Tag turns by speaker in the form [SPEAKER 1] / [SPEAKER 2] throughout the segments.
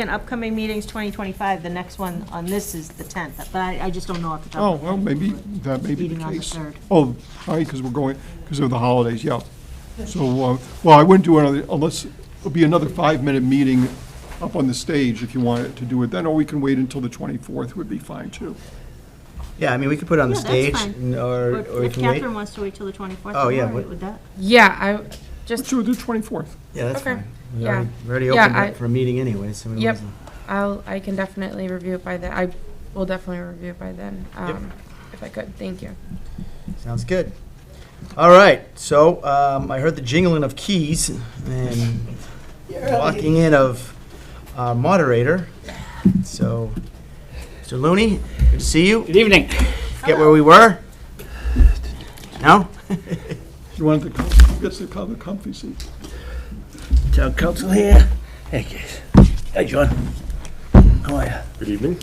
[SPEAKER 1] And upcoming meetings, 2025, the next one on this is the 10th, but I, I just don't know off the top.
[SPEAKER 2] Oh,
[SPEAKER 1] of my
[SPEAKER 2] well,
[SPEAKER 1] head.
[SPEAKER 2] maybe, that may be the
[SPEAKER 1] Meeting on the
[SPEAKER 2] case.
[SPEAKER 1] third.
[SPEAKER 2] Oh, right, because we're going, because of the holidays, yeah. So, uh, well, I wouldn't do another, unless, it'll be another five-minute meeting up on the stage if you wanted to do it then, or we can wait until the 24th would be fine, too.
[SPEAKER 3] Yeah, I mean, we could put it on the
[SPEAKER 1] Yeah, that's
[SPEAKER 3] stage,
[SPEAKER 1] fine.
[SPEAKER 3] n- or,
[SPEAKER 1] But
[SPEAKER 3] or we
[SPEAKER 1] If
[SPEAKER 3] can wait.
[SPEAKER 1] Catherine wants to wait till the 24th,
[SPEAKER 3] Oh,
[SPEAKER 1] I'm
[SPEAKER 3] yeah,
[SPEAKER 1] all right
[SPEAKER 3] what-
[SPEAKER 1] with that.
[SPEAKER 4] Yeah, I just,
[SPEAKER 2] Sure, the 24th.
[SPEAKER 3] Yeah, that's
[SPEAKER 4] Okay.
[SPEAKER 3] fine. We
[SPEAKER 4] Yeah.
[SPEAKER 3] already- We already
[SPEAKER 4] Yeah,
[SPEAKER 3] opened
[SPEAKER 4] I-
[SPEAKER 3] it for a meeting anyway, so. we
[SPEAKER 4] Yep.
[SPEAKER 3] might as well.
[SPEAKER 4] I'll, I can definitely review it by then. I will definitely review it by then, um, if I could. Thank you.
[SPEAKER 3] Sounds good. All right, so um, I heard the jingling of keys and walking in of our moderator. So, Mr. Looney, good to see you.
[SPEAKER 5] Good evening.
[SPEAKER 3] Get where we were? No?
[SPEAKER 2] You wanted to, come- who gets to come, the comfy seat?
[SPEAKER 5] Town council here. Hey, guys. Hi, John. How are you? Good evening.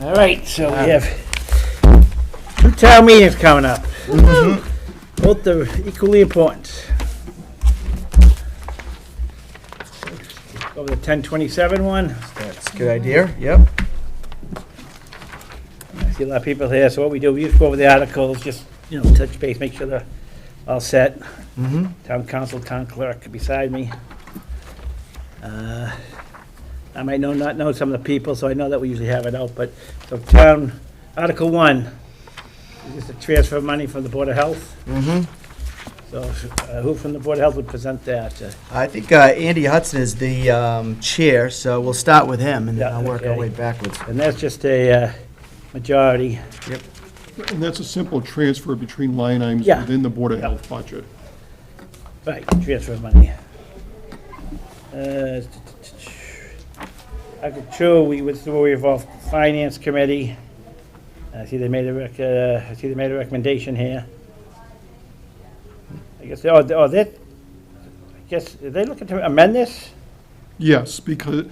[SPEAKER 5] All right, so we
[SPEAKER 3] Ah.
[SPEAKER 5] have two town meetings coming up.
[SPEAKER 3] Mm-hmm.
[SPEAKER 5] Both are equally important. Over the 1027 one,
[SPEAKER 3] That's a good idea, yep.
[SPEAKER 5] I see a lot of people here, so what we do, we just go over the articles, just, you know, touch base, make sure they're all set.
[SPEAKER 3] Mhm.
[SPEAKER 5] Town council, town clerk beside me. Uh, I might know, not know some of the people, so I know that we usually have it out, but, so town, Article One, is just a transfer of money from the Board of Health.
[SPEAKER 3] Mhm.
[SPEAKER 5] So uh, who from the Board of Health would present that? Uh,
[SPEAKER 3] I think uh, Andy Hudson is the um, chair, so we'll start with him and then
[SPEAKER 5] Yeah,
[SPEAKER 3] I'll work our
[SPEAKER 5] okay.
[SPEAKER 3] way backwards.
[SPEAKER 5] And that's just a uh, majority.
[SPEAKER 2] And that's a simple transfer between line items
[SPEAKER 5] Yeah.
[SPEAKER 2] within the Board of Health budget.
[SPEAKER 5] Right, transfer of money. Uh, Article two, we withdrew, we involved finance committee. I see they made a rec, uh, I see they made a recommendation here. I guess, oh, they- oh, that, I guess, are they looking to amend this?
[SPEAKER 2] Yes, because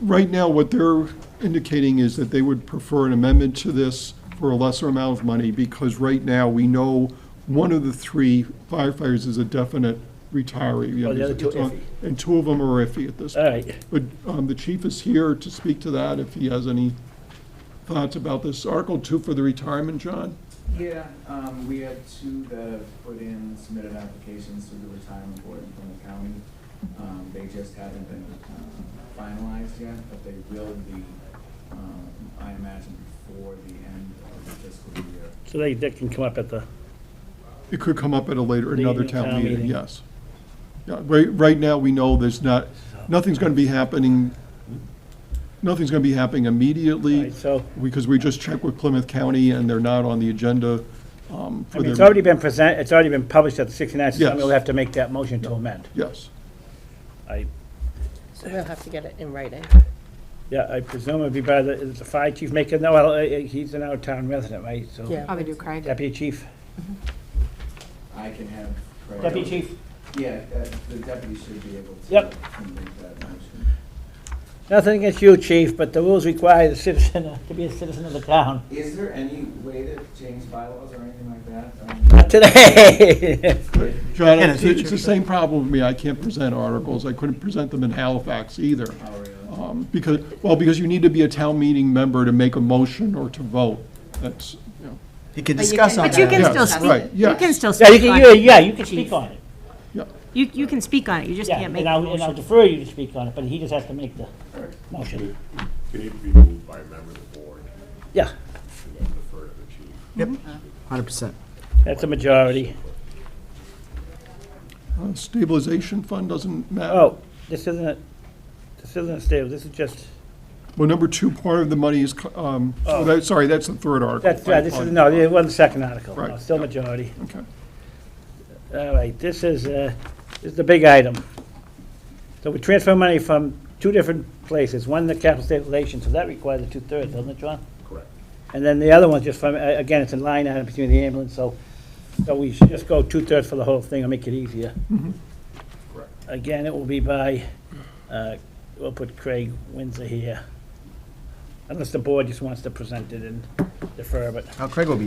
[SPEAKER 2] right now, what they're indicating is that they would prefer an amendment to this for a lesser amount of money, because right now, we know one of the three firefighters is a definite retiree.
[SPEAKER 5] Oh, the other two are iffy.
[SPEAKER 2] And two of them are iffy at this
[SPEAKER 5] All
[SPEAKER 2] point.
[SPEAKER 5] right,
[SPEAKER 2] But um, the chief is here to speak to that, if he has any thoughts about this. Article two for the retirement, John?
[SPEAKER 6] Yeah, um, we had two that have put in, submitted applications to the retirement board in Plymouth County. Um, they just haven't been um, finalized yet, but they will be, um, I imagine before the end of the fiscal year.
[SPEAKER 5] so they, that can come up at the,
[SPEAKER 2] It could come up at a later,
[SPEAKER 5] The
[SPEAKER 2] another town
[SPEAKER 5] town
[SPEAKER 2] meeting,
[SPEAKER 5] meeting.
[SPEAKER 2] yes. Yeah, right, right now, we know there's not, nothing's gonna be happening, nothing's gonna be happening
[SPEAKER 5] all
[SPEAKER 2] immediately,
[SPEAKER 5] right, so,
[SPEAKER 2] because we just checked with Plymouth County, and they're not on the agenda, um,
[SPEAKER 5] I
[SPEAKER 2] for
[SPEAKER 5] mean,
[SPEAKER 2] their.
[SPEAKER 5] it's already been present, it's already been published at the sixty-nine, so somebody
[SPEAKER 2] Yes.
[SPEAKER 5] will have to make that motion to amend.
[SPEAKER 2] Yes,
[SPEAKER 5] I,
[SPEAKER 7] So they'll have to get it in writing.
[SPEAKER 5] yeah, I presume it'd be by the, is the fire chief making, no, well, uh, uh, he's an out-of-town resident, right, so.
[SPEAKER 7] Yeah.
[SPEAKER 1] do Craig.
[SPEAKER 5] Deputy Chief.
[SPEAKER 6] I can have. Craig-
[SPEAKER 5] Deputy Chief.
[SPEAKER 6] Yeah, uh, the deputy should be able to.
[SPEAKER 5] Yep.
[SPEAKER 6] to make that motion.
[SPEAKER 5] Nothing against you, Chief, but the rules require the citizen uh, to be a citizen of the town.
[SPEAKER 6] Is there any way to change bylaws or anything like that?
[SPEAKER 5] Not
[SPEAKER 6] Um,
[SPEAKER 5] today.
[SPEAKER 2] John,
[SPEAKER 3] In the
[SPEAKER 2] it's it's
[SPEAKER 3] future.
[SPEAKER 2] the same problem with me, I can't present articles, I couldn't present them in Halifax either.
[SPEAKER 6] Oh, really?
[SPEAKER 2] Um, Because, well, because you need to be a town meeting member to make a motion or to vote, that's, you know,
[SPEAKER 3] You can
[SPEAKER 1] But you
[SPEAKER 3] discuss
[SPEAKER 1] can-
[SPEAKER 3] on
[SPEAKER 1] But you
[SPEAKER 3] that.
[SPEAKER 1] can
[SPEAKER 2] Yeah,
[SPEAKER 1] still
[SPEAKER 2] right,
[SPEAKER 1] speak, you
[SPEAKER 2] yeah.
[SPEAKER 1] can still
[SPEAKER 5] Yeah, you
[SPEAKER 1] speak
[SPEAKER 5] can,
[SPEAKER 1] on
[SPEAKER 5] you-
[SPEAKER 1] it.
[SPEAKER 5] yeah, you can speak on it.
[SPEAKER 1] You, you can speak on it, you just
[SPEAKER 5] Yeah,
[SPEAKER 1] can't make
[SPEAKER 5] and
[SPEAKER 1] the
[SPEAKER 5] I'll, and I'll
[SPEAKER 1] motion.
[SPEAKER 5] defer you to speak on it, but he just has to make the motion.
[SPEAKER 8] It need to be moved by a member of the board
[SPEAKER 5] Yeah,
[SPEAKER 8] and then defer to the chief.
[SPEAKER 3] Hundred percent.
[SPEAKER 5] that's a majority.
[SPEAKER 2] uh, stabilization fund doesn't matter.
[SPEAKER 5] Oh, this isn't, a- this isn't a stable, this is just,
[SPEAKER 2] Well, number two, part of the money is, co- um, oh, that- sorry, that's the third article.
[SPEAKER 5] that's, right, this is, no, it wasn't the second article. No,
[SPEAKER 2] Right,
[SPEAKER 5] Still
[SPEAKER 2] yeah.
[SPEAKER 5] majority.
[SPEAKER 2] Okay.
[SPEAKER 5] All right, this is, uh, this is the big item. So we transfer money from two different places, one the capital stabilization, so that requires a two-thirds, doesn't it, John?
[SPEAKER 8] Correct.
[SPEAKER 5] And then the other one's just from, a- again, it's a line item between the ambulance, so, so we should just go two-thirds for the whole thing and make it easier.
[SPEAKER 8] Correct.
[SPEAKER 5] Again, it will be by, uh, we'll put Craig Windsor here, unless the board just wants to present it and defer, but
[SPEAKER 3] Now Craig will be